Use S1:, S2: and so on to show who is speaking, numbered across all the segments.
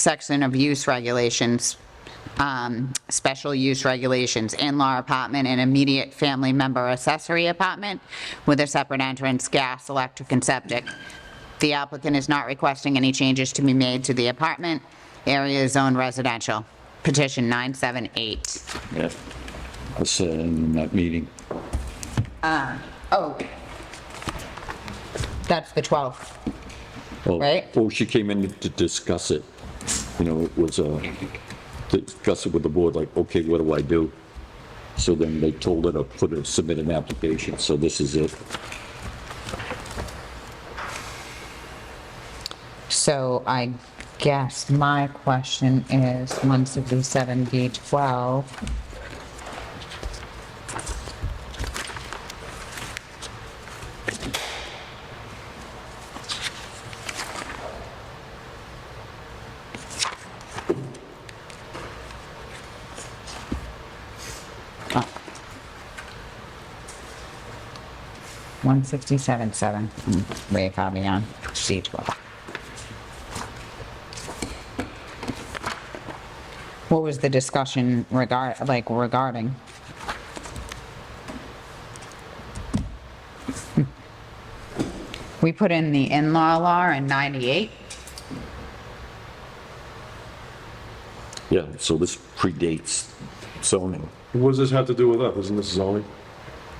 S1: section of use regulations, um, special use regulations, in-law apartment and immediate family member accessory apartment with a separate entrance, gas, electric, and septic. The applicant is not requesting any changes to be made to the apartment. Area is zoned residential. Petition 978.
S2: Yeah, I said in that meeting.
S1: Oh. That's the 12th.
S2: Well,
S1: Right.
S2: Well, she came in to discuss it, you know, it was, uh, to discuss it with the board, like, okay, what do I do? So then they told her to put, a- submit an application, so this is it.
S1: So I guess my question is, once it was seven B twelve. One sixty-seven, seven, Hmm, way caught me on, C twelve. What was the discussion regard, like regarding? Hmm. We put in the in-law law in 98.
S2: Yeah, so this predates zoning.
S3: What does this have to do with us? Isn't this zoning?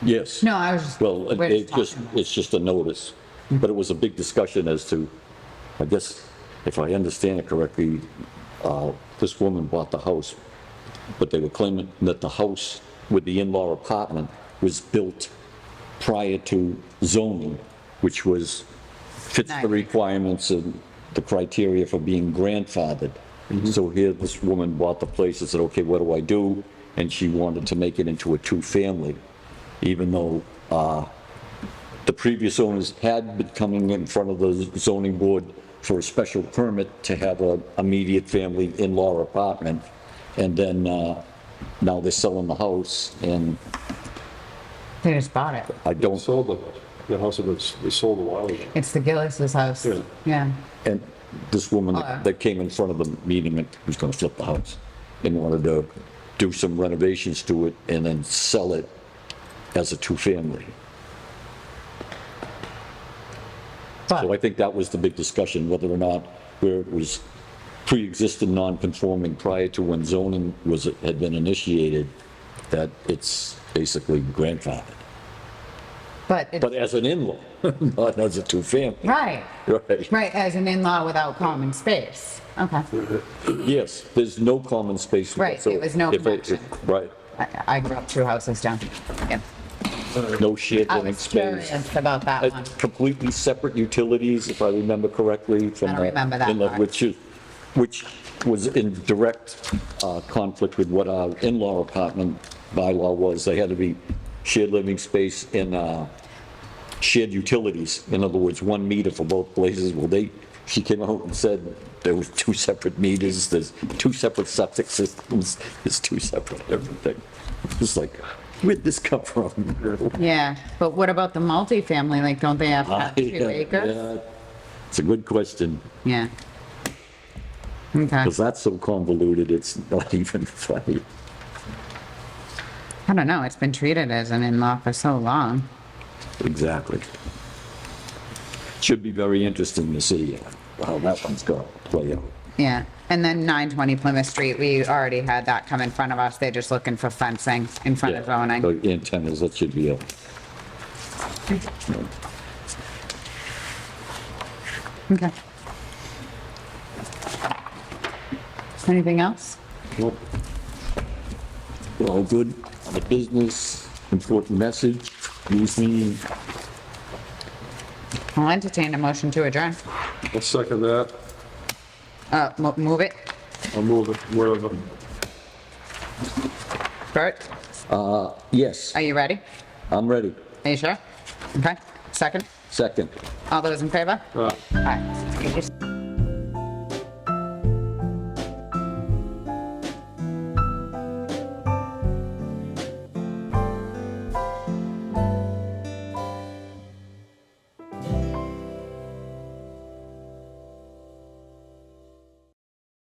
S2: Yes.
S1: No, I was just.
S2: Well, it-
S1: we're
S2: it's
S1: talking
S2: just,
S1: about-
S2: it's just a notice, but it was a big discussion as to, I guess, if I understand it correctly, uh, this woman bought the house, but they were claiming that the house with the in-law apartment was built prior to zoning, which was, fits the
S1: Nice.
S2: requirements and the criteria for being grandfathered.
S1: Mm-hmm.
S2: So here, this woman bought the place and said, okay, what do I do? And she wanted to make it into a two-family, even though uh, the previous owners had been coming in front of the zoning board for a special permit to have a immediate family in-law apartment. And then uh, now they're selling the house, and
S1: They just bought it.
S2: I
S3: They
S2: don't,
S3: sold the, the house that was, they sold a while ago.
S1: It's the Gillis's house.
S3: Yeah.
S1: Yeah.
S2: and this woman
S1: Oh, yeah.
S2: that came in front of the meeting and was gonna flip the house and wanted to do some renovations to it and then sell it as a two-family. So I
S1: But,
S2: think that was the big discussion, whether or not where it was pre-existing non-conforming prior to when zoning was, had been initiated, that it's basically grandfathered.
S1: but, it's-
S2: But as an in-law, not as a two-family.
S1: right,
S2: Right,
S1: right, as an in-law without common space. Okay.
S2: yes, there's no common space.
S1: Right, it
S2: so
S1: was no
S2: if it- if-
S1: connection.
S2: Right,
S1: I, I grew up two houses down. Yeah.
S2: no shared
S1: I
S2: living
S1: was
S2: space.
S1: curious about that
S2: Uh,
S1: one.
S2: Completely separate utilities, if I remember correctly, from.
S1: I don't
S2: the-
S1: remember that
S2: in the-
S1: part.
S2: Which is, which was in direct uh, conflict with what our in-law apartment bylaw was. They had to be shared living space and uh, shared utilities. In other words, one meter for both places. Well, they, she came out and said there was two separate meters, there's two separate septic systems, there's two separate everything. It's like, where'd this come from?
S1: Yeah, but what about the multifamily? Like, don't they have to have two
S2: Yeah,
S1: acres?
S2: uh, yeah. It's a good question,
S1: Yeah. Okay.
S2: because that's so convoluted, it's not even funny.
S1: I don't know, it's been treated as an in-law for so long.
S2: Exactly. Should be very interesting to see uh, how that one's going to play out.
S1: Yeah, and then 920 Plymouth Street, we already had that come in front of us, they're just looking for fencing in front of zoning.
S2: The Antennas, that should be a.
S1: Okay. Anything else?
S2: Well, All good, on the business, important message, use me,
S1: I'll entertain a motion to adjourn.
S3: I'll second that.
S1: Uh, mo- move it.
S3: I'll move it wherever.
S1: Bert,
S2: yes,
S1: are you ready?
S2: I'm ready,
S1: Are you sure? Okay, second.
S2: second.
S1: All those in favor?
S3: Uh,
S1: Aye.